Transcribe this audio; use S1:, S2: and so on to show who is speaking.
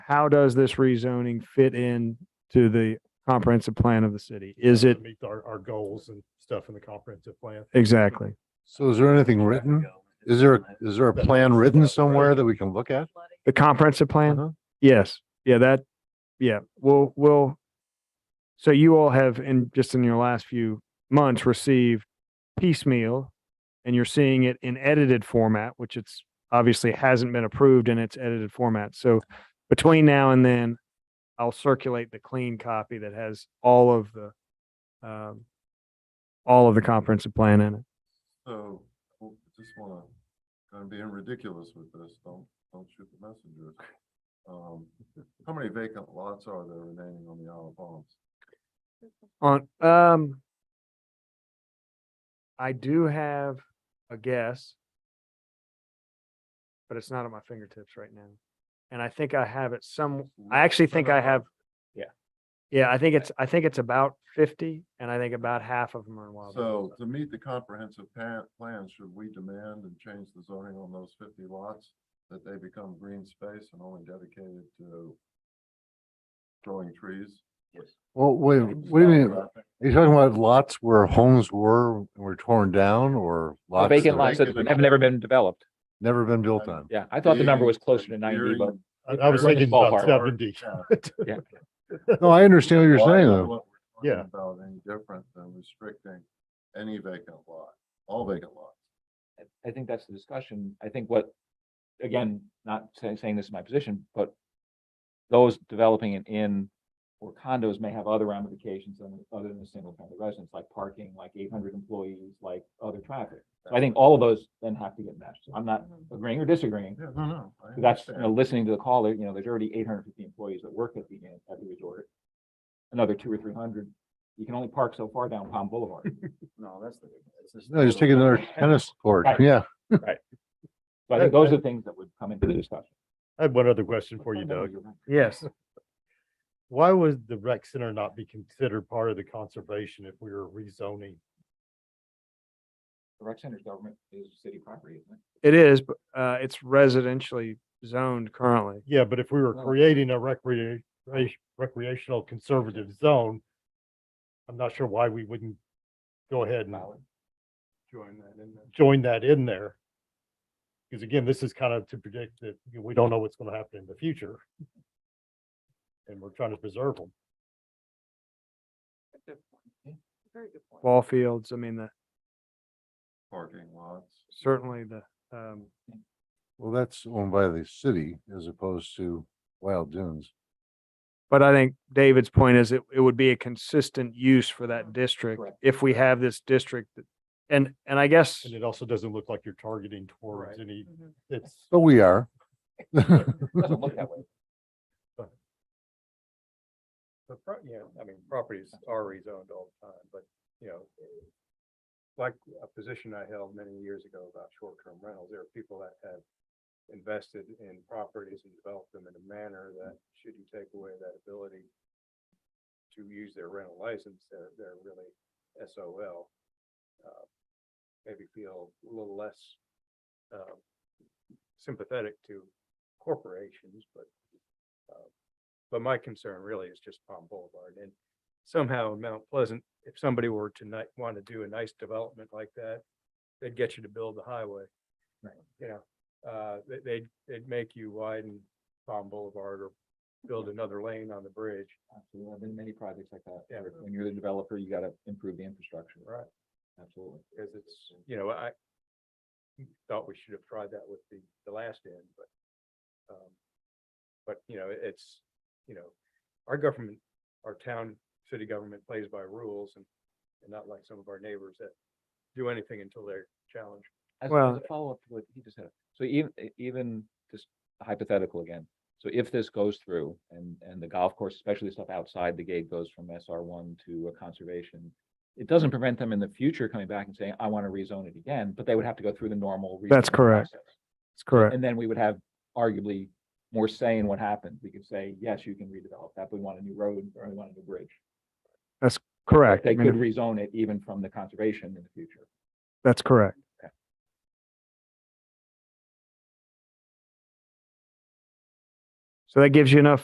S1: how does this rezoning fit in to the comprehensive plan of the city? Is it,
S2: Meet our, our goals and stuff in the comprehensive plan.
S1: exactly.
S3: So is there anything written? Is there, a- is there a plan written somewhere that we can look at?
S1: The comprehensive plan?
S3: Uh-huh.
S1: Yes. Yeah, that, yeah, we'll, we'll. So you all have, in, just in your last few months, received piecemeal and you're seeing it in edited format, which it's obviously hasn't been approved in its edited format. So between now and then, I'll circulate the clean copy that has all of the, um, all of the comprehensive plan in it.
S4: So, w- just wanna, gonna be ridiculous with this, don't, don't shoot the messenger. Um, how many vacant lots are there remaining on the Isle of Palms?
S1: On, um, I do have a guess, but it's not at my fingertips right now. And I think I have it some, I actually think I have.
S2: Yeah.
S1: Yeah, I think it's, I think it's about fifty and I think about half of them are in wild.
S4: So to meet the comprehensive pa- plan, should we demand and change the zoning on those fifty lots? That they become green space and only dedicated to growing trees?
S3: Well, wait, what do you mean? Are you talking about lots where homes were, and were torn down or
S5: Or
S3: lots? that
S5: Vacant lots that
S4: vacant-
S5: have never been developed.
S3: Never been built on?
S5: Yeah, I thought the number was closer to ninety, but
S2: I, I was
S5: We're in the
S2: thinking about
S5: ballpark.
S2: seventy.
S3: No, I understand what you're saying though.
S2: Yeah.
S4: About any different than restricting any vacant lot, all vacant lots.
S5: I think that's the discussion. I think what, again, not say- saying this is my position, but those developing an inn or condos may have other ramifications than, other than the single family residence, like parking, like eight hundred employees, like other traffic. So I think all of those then have to get meshed. I'm not agreeing or disagreeing.
S4: Yeah, no, no. I
S5: That's, you know,
S4: understand.
S5: listening to the caller, you know, there's already eight hundred fifty employees that work at the, inn- at the resort. Another two or three hundred. You can only park so far down Palm Boulevard.
S6: No, that's the. it's
S3: No, just take another tennis court.
S5: Right.
S3: Yeah.
S5: So I think those are the things that would come into the discussion.
S2: I had one other question for you, Doug.
S1: Yes,
S2: Why would the rec center not be considered part of the conservation if we were rezoning?
S5: The rec center's government is city property, isn't it?
S1: it is, but, uh, it's residentially zoned currently.
S2: Yeah, but if we were
S5: No.
S2: creating a recreation, recreational conservative zone, I'm not sure why we wouldn't go ahead
S7: Mm-hmm.
S2: and
S5: Valid.
S2: join that in there. Join that in there. Because again, this is kind of to predict that you know, we don't know what's going to happen in the future. And we're trying to preserve them.
S6: Very good point.
S1: Ball fields, I mean, the,
S4: Parking lots.
S1: certainly the, um,
S3: Well, that's owned by the city as opposed to Wild Dunes.
S1: But I think David's point is it, it would be a consistent use for that district
S5: Correct.
S1: if we have this district. that- And, and I guess,
S2: And it also doesn't look like you're targeting towards any,
S6: Mhm.
S2: it's,
S3: But we are.
S5: Doesn't look that way.
S7: The pro, yeah, I mean, properties are rezoned all the time, but, you know, like a position I held many years ago about short-term rentals, there are people that have invested in properties and developed them in a manner that should you take away that ability to use their rental license, they're, they're really SOL. uh, Maybe feel a little less uh, sympathetic to corporations, but uh, but my concern really is just Palm Boulevard and somehow Mount Pleasant, if somebody were to ni- want to do a nice development like that, they'd get you to build the highway.
S5: Right.
S7: You know, uh, they, they'd, they'd make you widen Palm Boulevard or build another lane on the bridge.
S5: Absolutely. There have been many projects like that.
S7: Yeah.
S5: where When you're the developer, you gotta improve the infrastructure.
S7: Right.
S5: Absolutely.
S7: Cause it's, you know, I thought we should have tried that with the, the last end, but, um, but, you know, it- it's, you know, our government, our town, city government plays by rules and, and not like some of our neighbors that do anything until they're challenged.
S5: As as
S1: Well-
S5: a follow-up to what he just said, so even, even just hypothetical again. So if this goes through and, and the golf course, especially the stuff outside the gate goes from SR one to a conservation, it doesn't prevent them in the future coming back and saying, I want to rezone it again, but they would have to go through the normal.
S1: That's
S5: rezoning
S1: correct.
S5: process.
S1: it's correct.
S5: And then we would have arguably more say in what happens. We could say, yes, you can redevelop that, but we want a new road, or we want a new bridge.
S1: Correct. I
S5: They
S1: mean,
S5: could rezone it even from the conservation in the future.
S1: That's correct. So that gives you enough